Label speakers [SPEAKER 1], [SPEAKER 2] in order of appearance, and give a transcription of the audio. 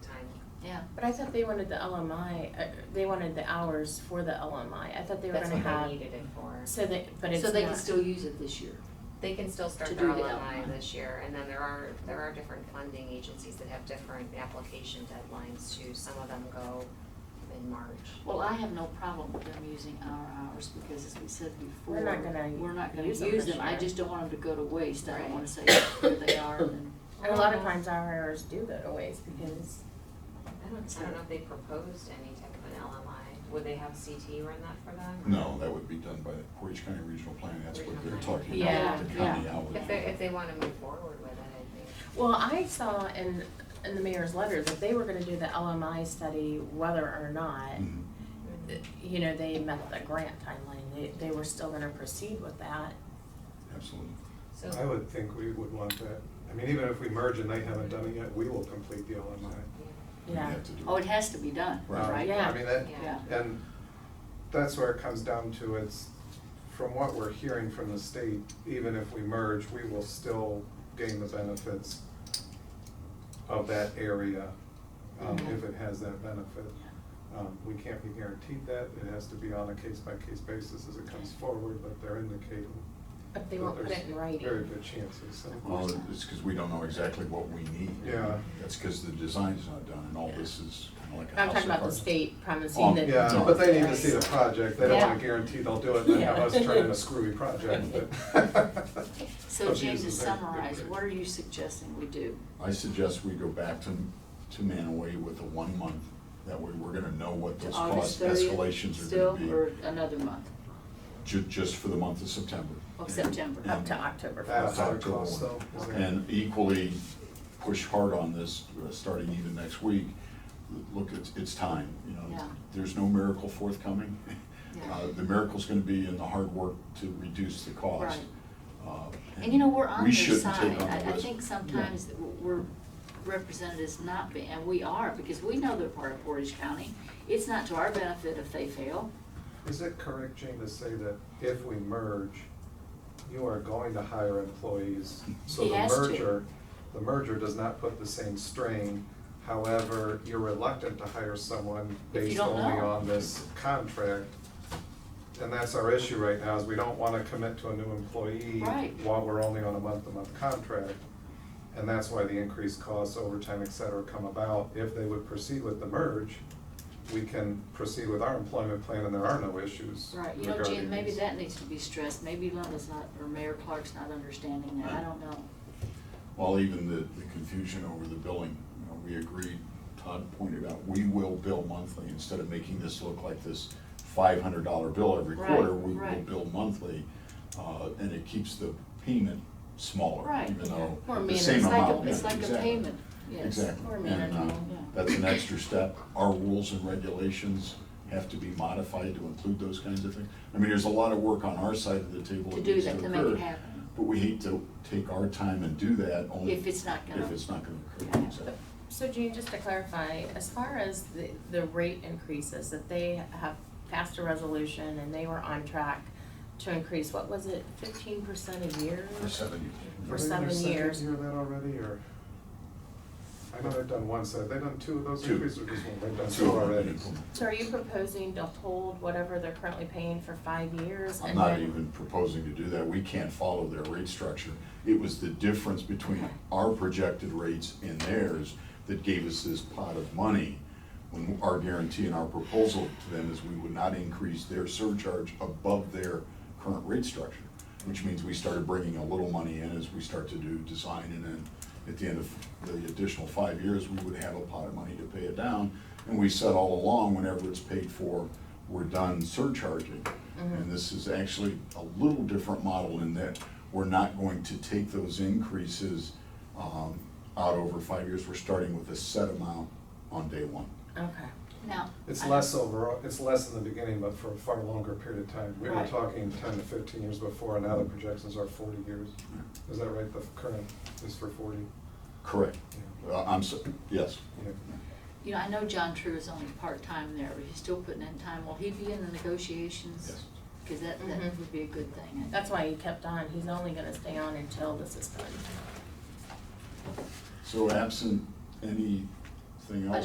[SPEAKER 1] But I thought they wanted the LMI, uh, they wanted the hours for the LMI. I thought they were
[SPEAKER 2] That's
[SPEAKER 1] gonna
[SPEAKER 2] what
[SPEAKER 1] have,
[SPEAKER 2] they needed it for.
[SPEAKER 1] so they, but it's
[SPEAKER 3] So they can
[SPEAKER 1] not-
[SPEAKER 3] still use it this year.
[SPEAKER 2] They can still start
[SPEAKER 3] to
[SPEAKER 2] their
[SPEAKER 3] do the
[SPEAKER 2] LMI
[SPEAKER 3] LMI.
[SPEAKER 2] this year, and then there are, there are different funding agencies that have different application deadlines too. Some of them go in March.
[SPEAKER 3] Well, I have no problem with them using our hours because as we said before.
[SPEAKER 1] We're not gonna
[SPEAKER 3] we're not gonna
[SPEAKER 1] use them
[SPEAKER 3] use
[SPEAKER 1] this
[SPEAKER 3] them. I
[SPEAKER 1] year.
[SPEAKER 3] just don't want them to go to waste. I
[SPEAKER 2] Right.
[SPEAKER 3] don't wanna say where they are and then.
[SPEAKER 1] And a lot of times our hours do go to waste because
[SPEAKER 2] I don't, I don't know if they proposed any type of an LMI. Would they have CT run that for them?
[SPEAKER 4] No, that would be done by the Portage County Regional Planning, that's what they're talking
[SPEAKER 1] Yeah,
[SPEAKER 4] about, with the county
[SPEAKER 3] yeah.
[SPEAKER 4] hours.
[SPEAKER 2] If they, if they wanna move forward with it, I think.
[SPEAKER 1] Well, I saw in, in the mayor's letter that they were gonna do the LMI study whether or not,
[SPEAKER 4] Mhm.
[SPEAKER 1] Mm. you know, they met the grant timeline, they, they were still gonna proceed with that.
[SPEAKER 4] Absolutely.
[SPEAKER 5] I
[SPEAKER 2] So,
[SPEAKER 5] would think we would want that. I mean, even if we merge and they haven't done it yet, we will complete the LMI.
[SPEAKER 4] We'd
[SPEAKER 1] Yeah.
[SPEAKER 4] have to do
[SPEAKER 3] Oh, it has to be done,
[SPEAKER 4] Right.
[SPEAKER 3] right?
[SPEAKER 1] Yeah.
[SPEAKER 5] Um, I mean, that,
[SPEAKER 2] yeah,
[SPEAKER 5] and that's where it comes down to, it's, from what we're hearing from the state, even if we merge, we will still gain the benefits of that area, um,
[SPEAKER 1] Mm-hmm.
[SPEAKER 5] if it has that benefit. Um, we can't be guaranteed that, it has to be on a case-by-case basis as it comes forward, but they're indicating
[SPEAKER 1] But they
[SPEAKER 5] that
[SPEAKER 1] won't put
[SPEAKER 5] there's
[SPEAKER 1] it in writing.
[SPEAKER 5] Very good chances, so.
[SPEAKER 4] Well, it's because we don't know exactly what we need.
[SPEAKER 5] Yeah.
[SPEAKER 4] That's because the design's not done, and all this is kind of like a house
[SPEAKER 1] I'm
[SPEAKER 4] of
[SPEAKER 1] talking about the
[SPEAKER 4] cards.
[SPEAKER 1] state
[SPEAKER 4] Oh,
[SPEAKER 1] promising that.
[SPEAKER 5] Yeah, but they need to see the
[SPEAKER 1] Right.
[SPEAKER 5] project, they don't
[SPEAKER 1] Yeah.
[SPEAKER 5] wanna guarantee they'll do it and then have us turn in a screwy project, but.
[SPEAKER 3] So Jane, to
[SPEAKER 5] Abuses there.
[SPEAKER 3] summarize, what are you suggesting we do?
[SPEAKER 4] I suggest we go back to, to Manaway with a one month, that way we're gonna know what
[SPEAKER 3] To
[SPEAKER 4] those
[SPEAKER 3] August
[SPEAKER 4] cost
[SPEAKER 3] thirtieth
[SPEAKER 4] escalations are
[SPEAKER 3] still,
[SPEAKER 4] gonna
[SPEAKER 3] or another month
[SPEAKER 4] be, ju- just for the month of September.
[SPEAKER 3] of September?
[SPEAKER 1] Up to October
[SPEAKER 5] That's
[SPEAKER 1] first.
[SPEAKER 5] our cost though. is there-
[SPEAKER 4] And equally, push hard on this, uh, starting even next week. Look, it's, it's time, you
[SPEAKER 3] Yeah.
[SPEAKER 4] know, there's no miracle forthcoming.
[SPEAKER 3] Yeah.
[SPEAKER 4] Uh, The miracle's gonna be in the hard work to reduce the cost.
[SPEAKER 3] Right.
[SPEAKER 4] Uh,
[SPEAKER 3] And you know, we're on
[SPEAKER 4] we
[SPEAKER 3] their
[SPEAKER 4] shouldn't
[SPEAKER 3] side.
[SPEAKER 4] take on the
[SPEAKER 3] I, I
[SPEAKER 4] risk.
[SPEAKER 3] think
[SPEAKER 4] Yeah.
[SPEAKER 3] sometimes that we're represented as not being, and we are, because we know they're part of Portage County. It's not to our benefit if they fail.
[SPEAKER 5] Is it correct, Jane, to say that if we merge, you are going to hire employees? So
[SPEAKER 3] He
[SPEAKER 5] the
[SPEAKER 3] has to.
[SPEAKER 5] merger, the merger does not put the same strain, however, you're reluctant to hire someone
[SPEAKER 3] If you
[SPEAKER 5] based
[SPEAKER 3] don't
[SPEAKER 5] only
[SPEAKER 3] know.
[SPEAKER 5] on this contract. And that's our issue right now, is we don't wanna commit to a new employee
[SPEAKER 3] Right.
[SPEAKER 5] while we're only on a month-to-month contract. And that's why the increased costs, overtime, et cetera, come about. If they would proceed with the merge, we can proceed with our employment plan and there are no issues
[SPEAKER 3] Right, you know, Jim,
[SPEAKER 5] regarding
[SPEAKER 3] maybe
[SPEAKER 5] these.
[SPEAKER 3] that needs to be stressed. Maybe Linda's not, or Mayor Clark's not understanding that. I don't know.
[SPEAKER 4] Well, even the, the confusion over the billing, you know, we agreed, Todd pointed out, we will bill monthly instead of making this look like this five hundred dollar bill every
[SPEAKER 3] Right,
[SPEAKER 4] quarter, we will
[SPEAKER 3] right.
[SPEAKER 4] bill monthly. Uh, and it keeps the payment smaller,
[SPEAKER 3] Right,
[SPEAKER 4] even
[SPEAKER 3] yeah.
[SPEAKER 4] though
[SPEAKER 1] More
[SPEAKER 4] the same
[SPEAKER 3] It's like a-
[SPEAKER 4] amount.
[SPEAKER 3] It's
[SPEAKER 4] yeah,
[SPEAKER 3] like a
[SPEAKER 4] exactly,
[SPEAKER 3] payment, yes.
[SPEAKER 4] Exactly.
[SPEAKER 1] More
[SPEAKER 4] And, uh,
[SPEAKER 1] manageable,
[SPEAKER 3] yeah.
[SPEAKER 4] That's an extra step. Our rules and regulations have to be modified to include those kinds of things. I mean, there's a lot of work on our side of the table.
[SPEAKER 3] To
[SPEAKER 4] that
[SPEAKER 3] do
[SPEAKER 4] needs
[SPEAKER 3] that, to make
[SPEAKER 4] occur.
[SPEAKER 3] it happen.
[SPEAKER 4] But we hate to take our time and do that only.
[SPEAKER 3] If it's not gonna-
[SPEAKER 4] If it's not gonna occur,
[SPEAKER 3] Yeah.
[SPEAKER 4] exactly.
[SPEAKER 1] So Jean, just to clarify, as far as the, the rate increases, that they have passed a resolution and they were on track to increase, what was it, fifteen percent a year?
[SPEAKER 4] For seven
[SPEAKER 1] For
[SPEAKER 4] years.
[SPEAKER 1] se- seven years.
[SPEAKER 5] Have they done that already, or? I know they've done one, so have they done two of those
[SPEAKER 4] Two.
[SPEAKER 5] increases, or just one, they've done
[SPEAKER 4] Two
[SPEAKER 5] two
[SPEAKER 4] of them
[SPEAKER 5] already?
[SPEAKER 4] people.
[SPEAKER 1] So are you proposing to hold whatever they're currently paying for five years
[SPEAKER 4] I'm
[SPEAKER 1] and
[SPEAKER 4] not
[SPEAKER 1] then-
[SPEAKER 4] even proposing to do that. We can't follow their rate structure. It was the difference between our projected rates and theirs that gave us this pot of money. When our guarantee and our proposal to them is we would not increase their surcharge above their current rate structure, which means we started bringing a little money in as we start to do design and then at the end of the additional five years, we would have a pot of money to pay it down. And we said all along, whenever it's paid for, we're done surcharging. And this is actually a little different model in that we're not going to take those increases um, out over five years. We're starting with a set amount on day one.
[SPEAKER 1] Okay.
[SPEAKER 3] Now.
[SPEAKER 5] It's
[SPEAKER 3] I-
[SPEAKER 5] less overall, it's less in the beginning, but for a far longer period of time. We were
[SPEAKER 3] Right.
[SPEAKER 5] talking ten to fifteen years before, and now the projections are forty years. Is that right, the current is for forty?
[SPEAKER 4] Correct.
[SPEAKER 5] Yeah.
[SPEAKER 4] Uh, I'm, so- yes.
[SPEAKER 5] Yeah.
[SPEAKER 3] You know, I know John True is only part-time there, but he's still putting in time. Will he be in the negotiations?
[SPEAKER 4] Yes.
[SPEAKER 3] Cause that, that
[SPEAKER 5] Mm-hmm.
[SPEAKER 1] Mhm.
[SPEAKER 3] would be a good thing.
[SPEAKER 1] That's why he kept on. He's only gonna stay on until this is done.
[SPEAKER 4] So absent anything else?